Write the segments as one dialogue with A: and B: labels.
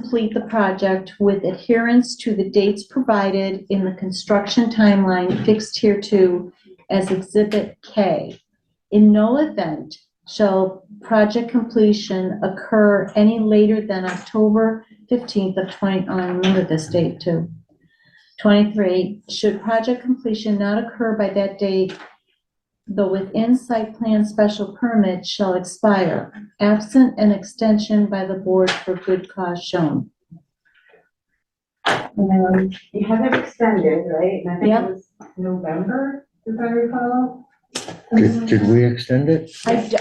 A: complete the project with adherence to the dates provided in the construction timeline fixed hereto as Exhibit K. In no event shall project completion occur any later than October 15th of 20, oh, I remember this date too. 23, should project completion not occur by that date, the within site plan special permit shall expire, absent an extension by the board for good cause shown.
B: Um, You have it extended, right? And I think
A: Yep.
B: it was November, if I recall. Um,
C: Did, did we extend it?
A: I d-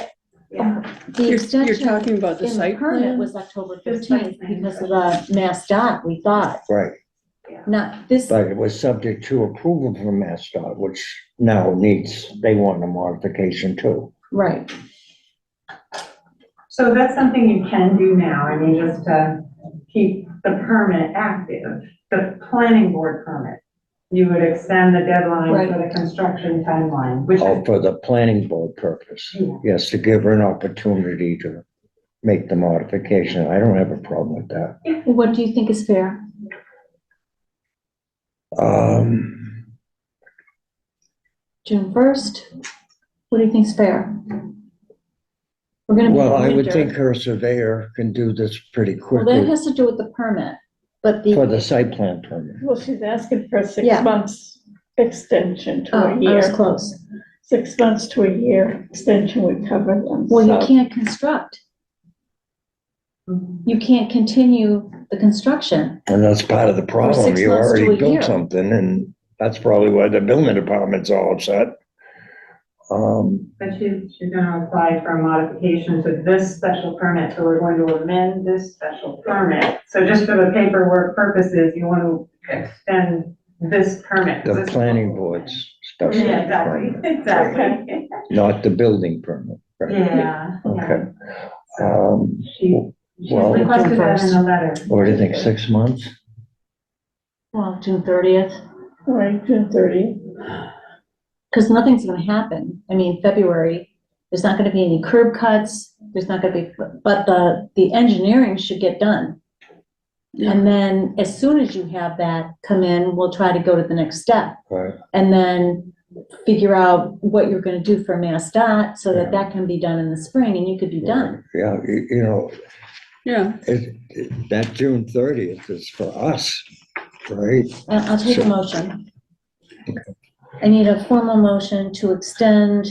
B: Yeah.
A: The
D: You're, you're
A: extension
D: talking about the
A: in the
D: site
A: permit
D: plan?
A: was October
B: Fifteenth.
A: 15th because of the Mass dot, we thought,
C: Right,
A: not this,
C: but it was subject to approval from MassDOT, which now needs, they want a modification too.
A: right.
B: So that's something you can do now, I mean, just to keep the permit active, the planning board permit. You would extend the deadline for the construction timeline, which
C: Oh,
B: is,
C: for the planning board purpose.
B: Yeah.
C: Yes, to give her an opportunity to make the modification. I don't have a problem with that.
A: What do you think is fair?
C: Um,
A: June 1st? What do you think is fair? We're gonna be in
C: well, I would
A: winter.
C: think her surveyor can do this pretty
A: Well, that
C: quickly
A: has to do with the permit, but the.
C: for the site plan permit.
E: Well, she's asking for a
A: Yeah.
E: six months extension to
A: Oh, I
E: a
A: was
E: year.
A: close.
E: Six months to a year extension would cover them.
A: Well, you
E: so-
A: can't construct.
B: Mhm.
A: You can't continue the construction.
C: And that's part of the problem.
A: six
C: You
A: months to a
C: already
A: year.
C: built something and that's probably why the building department's all upset. Um,
B: but she's, she's gonna apply for a modification to this special permit, so we're going to amend this special permit. So just for the paperwork purposes, you want to extend this permit.
C: the
B: This-
C: planning board's special
B: Yeah, exactly,
C: permit,
B: exactly.
C: not the building permit. right?
B: Yeah, yeah.
C: Okay. Um,
B: She, she
C: Well-
B: requested that in the letter.
C: what do you think, six months?
A: Well, June thirtieth,
E: All Right, June thirty.
A: because nothing's gonna happen. I mean, February, there's not gonna be any curb cuts, there's not gonna be, but the, the engineering should get done. And then as soon as you have that come in, we'll try to go to the next step.
C: Right.
A: and then figure out what you're gonna do for Mass Dot, so that
C: Yeah.
A: that can be done in the spring, and you could be done.
C: Yeah, you, you know,
D: Yeah,
C: it, it- that June thirtieth is for us, right?
A: I- Uh, I'll take a
C: Sure.
A: motion. I need a formal motion to extend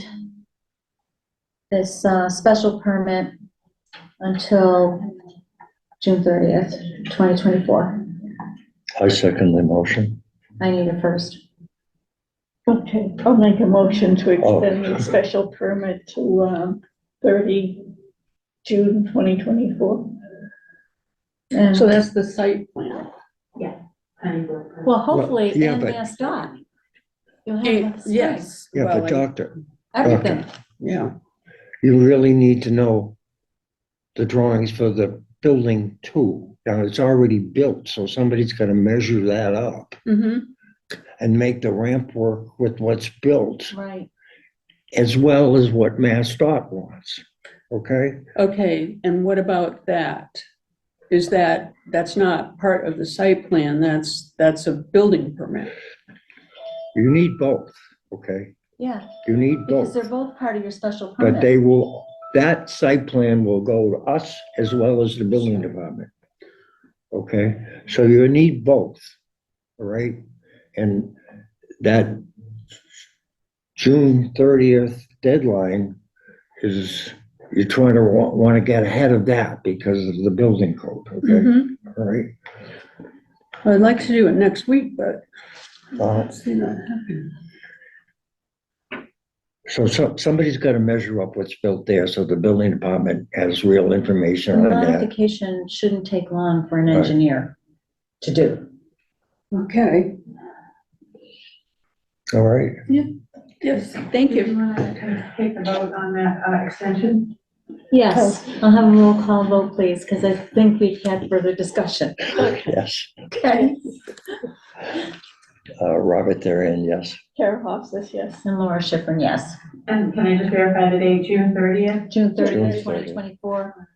A: this, uh, special permit until June thirtieth, twenty twenty-four.
C: I second the motion.
A: I need a first.
E: Okay, I'll make a motion to
C: Oh.
E: extend the special permit to, um, thirty, June twenty twenty-four.
A: And-
D: so that's the site plan.
B: Planning board permit.
A: Well, hopefully,
C: yeah,
A: and
C: but-
A: Mass Dot. You'll have
D: Eh,
A: the spring,
D: Yes.
C: Yeah,
D: well,
C: but
D: I-
C: doctor,
A: Everything.
D: Yeah,
C: you really need to know the drawings for the building too. Now, it's already built, so somebody's gonna measure that up
A: Mm-hmm.
D: hmm
C: and make the ramp work with what's built
A: Right.
C: as well as what Mass Dot wants, okay?
D: okay, and what about that? Is that, that's not part of the site plan, that's, that's a building permit.
C: You need both, okay?
A: Yeah,
C: You need
A: because
C: both,
A: they're both part of your special permit.
C: but they will, that site plan will go to us as well as the building department. Okay, so you need both, all right? And that June thirtieth deadline is, you're trying to wa- wanna get ahead of that because of the building code,
A: Mm-hmm.
C: okay?
D: Mhm.
C: All right?
D: I'd like to do it next week, but
C: Uh,
D: I've seen that happen.
C: So, so somebody's gotta measure up what's built there, so the building department has real
A: The
C: information on that.
A: modification shouldn't take long for an
C: Right.
A: engineer to do.
D: Okay,
C: All right,
D: yes, thank
B: Do you
D: you.
B: want to take a vote on that uh, extension?
A: Yes, I'll have a roll call vote, please, because I think we've had further discussion.
C: yes.
A: Okay.
C: Uh, Robert Therin, yes.
E: Kara Hofstas, yes.
A: And Laura Schiffern, yes.
B: And can I just verify the date, June thirtieth?
A: June 30th,
C: June 30th.
A: 2024.